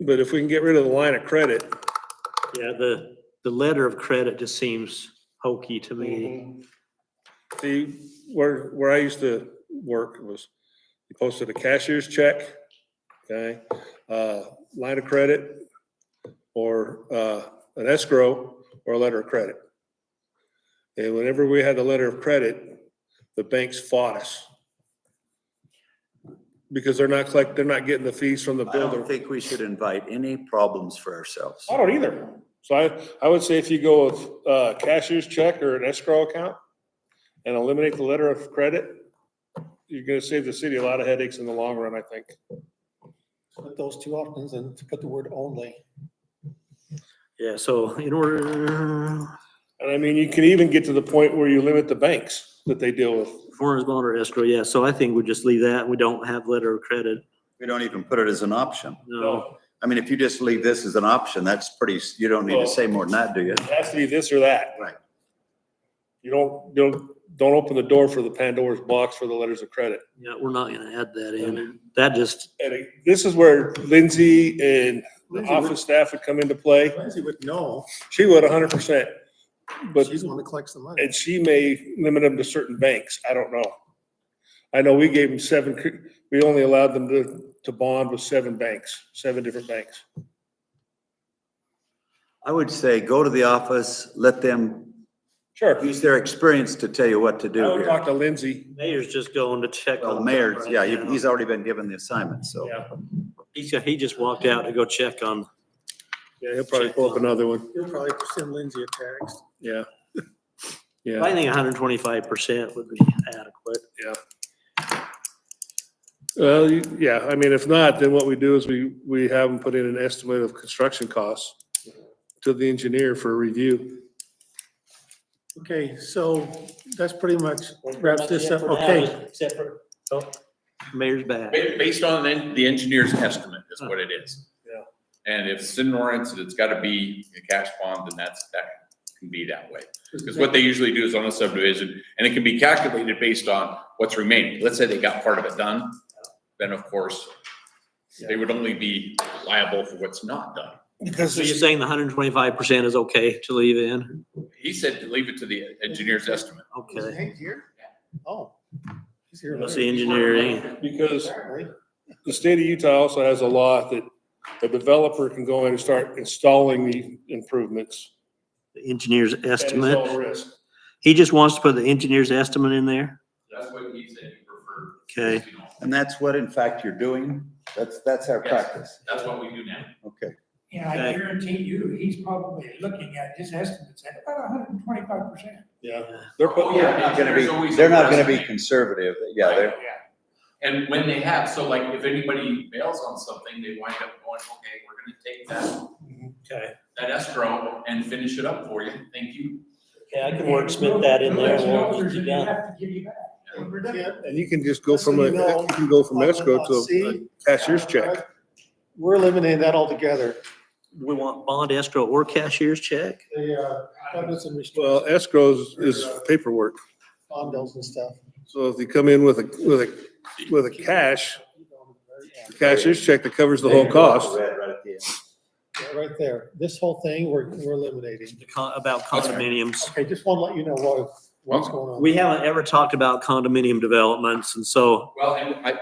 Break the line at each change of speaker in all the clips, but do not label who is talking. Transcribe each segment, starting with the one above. But if we can get rid of the line of credit,
Yeah, the, the letter of credit just seems hokey to
Mm-hmm.
me.
the, where, where I used to work was, you posted a cashier's check, okay? Uh, line of credit, or, uh, an escrow, or a letter of credit. And whenever we had a letter of credit, the banks fought us. Because they're not collect, they're not getting the fees from the
I
builder.
don't think we should invite any problems for ourselves.
I don't either. So I, I would say if you go with uh cashier's check or an escrow account and eliminate the letter of credit, you're gonna save the city a lot of headaches in the long run, I think.
Put those two options and to put the word only.
Yeah, so in order,
And I mean, you can even get to the point where you limit the banks that they deal with.
foreigner's bond or escrow, yeah, so I think we just leave that. We don't have letter of credit.
We don't even put it as an option.
No,
I mean, if you just leave this as an option, that's pretty, you don't need
Well-
to say more than that, do you?
It has to be this or that.
Right.
You don't, don't, don't open the door for the Pandora's box for the letters of credit.
yeah, we're not gonna add that in. That just,
And it- this is where Lindsay and the
Lindsay would-
office staff would come into play.
Lindsay would know,
She would hundred percent. But
she's the one that collects the money.
And she may limit them to certain banks. I don't know. I know we gave them seven, cre- we only allowed them to, to bond with seven banks, seven different banks.
I would say go to the office, let them
Sure. I
use their experience to tell you what to do
would talk
here.
to Lindsay.
mayor's just going to check
Well,
on.
the
them
mayor,
right
yeah,
now.
he- he's already been given the assignment, so.
Yeah,
He's, he just walked out to go check on.
yeah, he'll probably pull up another one.
You'll probably send Lindsay a text.
Yeah.
I
Yeah,
think hundred and twenty-five percent would be adequate.
well, you- yeah, I mean, if not, then what we do is we, we have them put in an estimate of construction costs to the engineer for review.
Okay, so that's pretty much wraps this up. Okay,
Except for, oh, mayor's back.
Ba- Based on the the engineer's estimate is what it is.
Yeah.
And if it's in Lawrence, and it's gotta be a cash bond, then that's, that can be that way. Because what they usually do is on a subdivision, and it can be calculated based on what's remaining. Let's say they got part of it done, then of course, they would only be liable for what's not done.
Because
So you're saying the hundred and twenty-five percent is okay to leave in?
He said to leave it to the engineer's estimate.
Okay.
here? Oh. He's here.
That's the engineering.
Because
Apparently.
The state of Utah also has a law that a developer can go in and start installing the improvements.
The engineer's
at his own
estimate.
risk.
He just wants to put the engineer's estimate in there?
That's what he said he preferred.
Okay.
You know,
And that's what in fact you're doing. That's, that's our
Yes.
practice.
That's what we do now.
Okay.
And I
Okay.
guarantee you, he's probably looking at his estimates at about hundred and twenty-five percent.
Yeah. They're
Oh,
putting,
yeah.
Not gonna
engineers
be,
always
they're not gonna be
underestimate.
conservative. Yeah, they're,
And when they have, so like if anybody bails on something, they wind up going, okay, we're gonna take that,
Okay.
that escrow and finish it up for you, thank you.
Okay, I can
We'll-
wordsmith that in
we'll
there.
let you know if
and we'll
there's
get you
any
done.
left to give you back. When we're done.
and you can just go from, a
Listen, you know,
you can go from escrow to a
See?
cashier's check.
We're eliminating that altogether.
Do we want bond escrow or cashier's check?
The, uh, covenants and
Well,
restrictions,
escrow is- is paperwork.
bond bills and stuff.
So if you come in with a, with a, with a cash, a cashier's check that covers the whole cost.
Red right at the end.
Yeah, Right there. This whole thing, we're, we're eliminating.
The con- About condominiums.
Okay, just want to let you know what, what's going on.
We haven't ever talked about condominium developments and so,
Well, and I,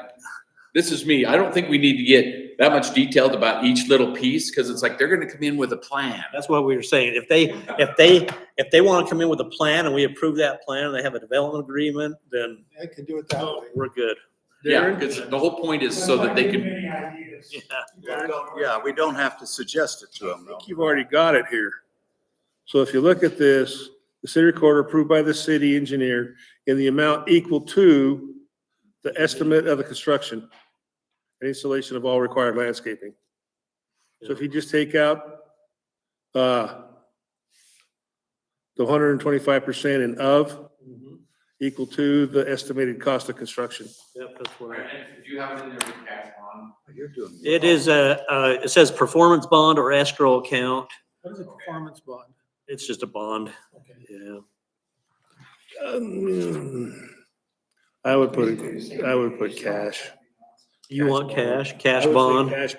this is me, I don't think we need to get that much detailed about each little piece, cause it's like, they're gonna come in with a plan.
that's what we were saying. If they, if they, if they want to come in with a plan and we approve that plan and they have a development agreement, then
I can do it that way.
we're good.
Yeah, cause the whole point is so that they
Give
can,
them any ideas.
Yeah.
We don't- Yeah, we don't have to suggest it to them though.
You've already got it here. So if you look at this, the city recorder approved by the city engineer in the amount equal to the estimate of the construction and installation of all required landscaping. So if you just take out, uh, the hundred and twenty-five percent and of
Mhm.
equal to the estimated cost of construction.
Yep, that's what I-
and if you have it in there with cash on,
You're doing.
It is a, uh, it says performance bond or escrow account.
What is a performance bond?
It's just a bond.
Okay.
Yeah.
Um, I would put, it- I would put cash.
You want cash, cash
I would say
bond?
Cash